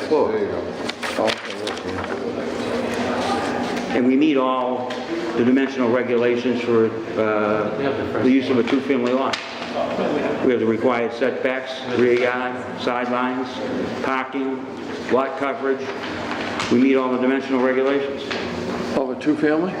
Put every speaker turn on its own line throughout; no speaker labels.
floor.
There you go.
And we meet all the dimensional regulations for uh, the use of a two-family lot. We have the required setbacks, rear yard, sidelines, parking, lot coverage. We meet all the dimensional regulations.
Of a two-family?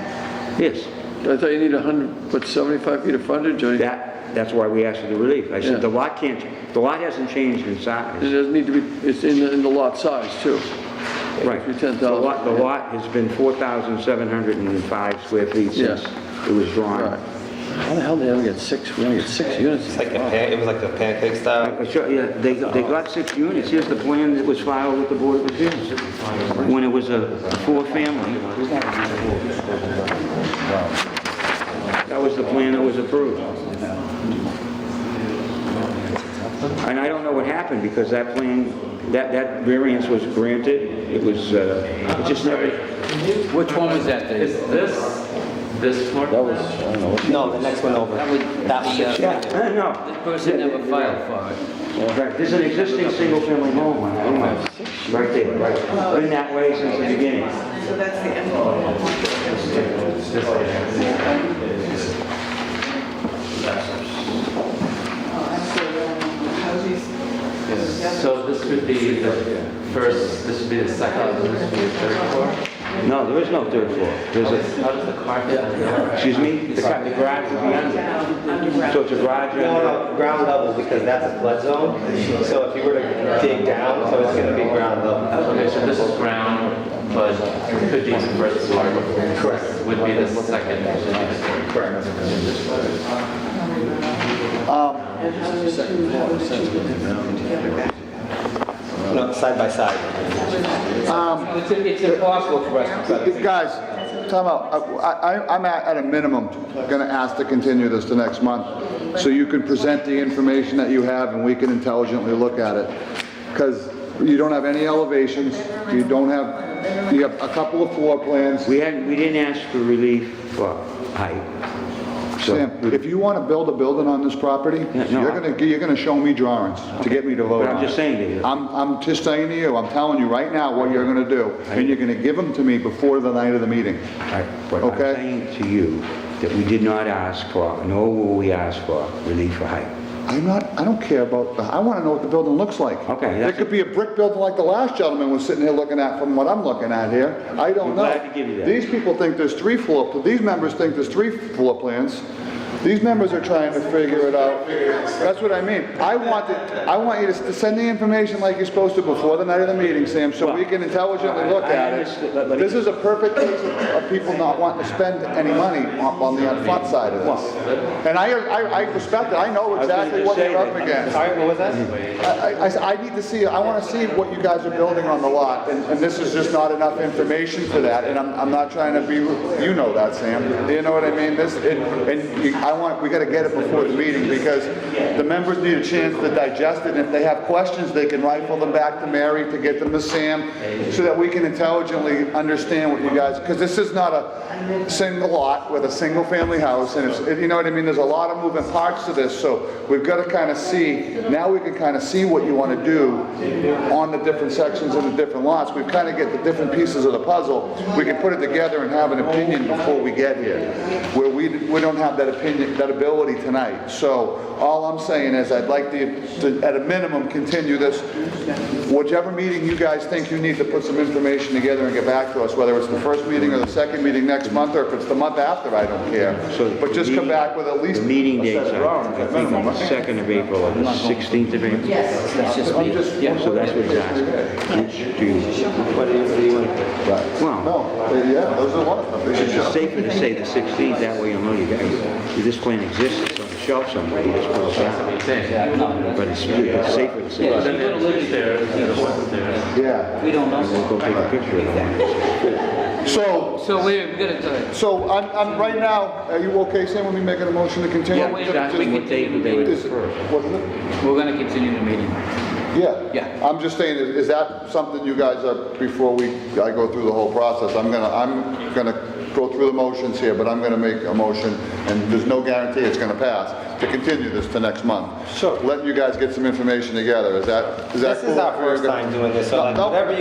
Yes,
I thought you need 100, what, 75 feet of frontage? or-
that, that's why we asked for the relief. I
Yeah.
said, the lot can't, the lot hasn't changed in size.
It doesn't need to be, it's in, the- in the lot size too.
Right.
If you're
The lot, the
10,000.
lot has been 4,705 square feet
Yeah.
since it was
Right.
drawn.
How the hell they only get six, we only get six units?
It's like a pan, it was like a pancake style.
Uh, sure, Yeah, they, they got six units, here's the plan that was filed with the Board of Appeals, when it was a four-family. That was the plan that was approved. And I don't know what happened, because that plan, that, that variance was granted, it was, uh, it just never,
Which one was that,
Is
Dave?
this, this floor? That was.
No, the next one over.
That was, that was, uh,
Uh, no.
the person never filed for it.
Right, there's an existing single-family home on that lot. right there, right, been that way since the beginning.
So that's the end.
So this would be the first, this would be the second, this would be the third floor?
No, there is no third floor, there's a,
How does the carpet?
excuse me, the car- the garage would be under, so it's a garage under,
No, no, ground level, because that's a flood zone, so if you were to dig down, so it's gonna be ground level.
Okay, so this is ground, but could be the first floor. Correct. Would be the second.
Correct. No, side by side.
It's, it's impossible for us to.
Guys, time out. Uh, I, I- I'm at, at a minimum, gonna ask to continue this to next month, so you can present the information that you have and we can intelligently look at it. Because you don't have any elevations, you don't have, you have a couple of floor plans.
we hadn't, we didn't ask for relief for height. So-
Sam, if you wanna build a building on this property,
Yeah, no,
you're
I-
gonna, you're gonna show me drawings to get me to vote
But
on
I'm
it.
just saying to you.
I'm, I'm just saying to you, I'm telling you right now what you're gonna do, and you're gonna give them to me before the night of the meeting.
I- But I'm
Okay.
saying to you that we did not ask for, nor will we ask for relief for height.
I'm not, I don't care about, the- I want to know what the building looks like.
Okay,
It
that's-
could be a brick building like the last gentleman was sitting here looking at from what I'm looking at here. I don't
I'm
know.
glad to give you that.
These people think there's three floor, pl- these members think there's three floor plans. These members are trying to figure it out. That's what I mean. I want it, I want you to s- send the information like you're supposed to before the night of the meeting, Sam, so we can intelligently look
I- I
at
understand, but- but-
it. This is a perfect case of of people not wanting to spend any money on on the front side of this. And I, I I respect it. I know
was gonna
exactly
just
what
say
you're up
that.
against.
All right, what was that?
I, I- I, I need to see, I want to see what you guys are building on the lot, and, and this is just not enough information for that, and I'm, I'm not trying to be, you know that, Sam, you know what I mean? This, it- and you- I want, we got to get it before the meeting, because the members need a chance to digest it, and if they have questions, they can rifle them back to Mary, to get them to Sam, so that we can intelligently understand what you guys, because this is not a single lot with a single-family house, and it's, you know what I mean? There's a lot of moving parts to this, so we've got to kind of see, now we can kind of see what you want to do on the different sections and the different lots. We've kind of get the different pieces of the puzzle. We can put it together and have an opinion before we get here, where we, we don't have that opinion, that ability tonight. So all I'm saying is I'd like to, to, at a minimum, continue this. Whichever meeting you guys think you need to put some information together and get back to us, whether it's the first meeting or the second meeting next month, or if it's the month after, I don't care.
So
But just come back with at least.
The meeting
a set
dates
of
are,
drawings
I
at
think,
minimum.
the 2nd of April or the 16th of April.
Yes.
That's just me. Yeah.
So that's what he's asking. Which do you-
What do you, what do you want?
Well,
No, they- yeah, those are one of them. They should
it's
show.
just safer to say the 16th, that way you'll know you got, this plan exists, it's on the shelf somewhere, you just pull it out. But it's it's safer to say,
Then it'll live there, it'll live there.
Yeah.
We don't know.
go take a picture of it.
So,
So wait, we gotta tell you.
so I'm, I'm, right now, are you okay, Sam, with me making a motion to continue?
Yeah, wait, Josh, we
What day would they-
Is- wasn't it?
We're gonna continue the meeting.
Yeah.
Yeah.
I'm just saying, is is that something you guys are, before we, I go through the whole process, I'm gonna, I'm gonna go through the motions here, but I'm gonna make a motion, and there's no guarantee it's gonna pass, to continue this to next month.
Sure.
Letting you guys get some information together, is that, is that
This
cool?
is our first time doing this, so like,
No, no.
whatever you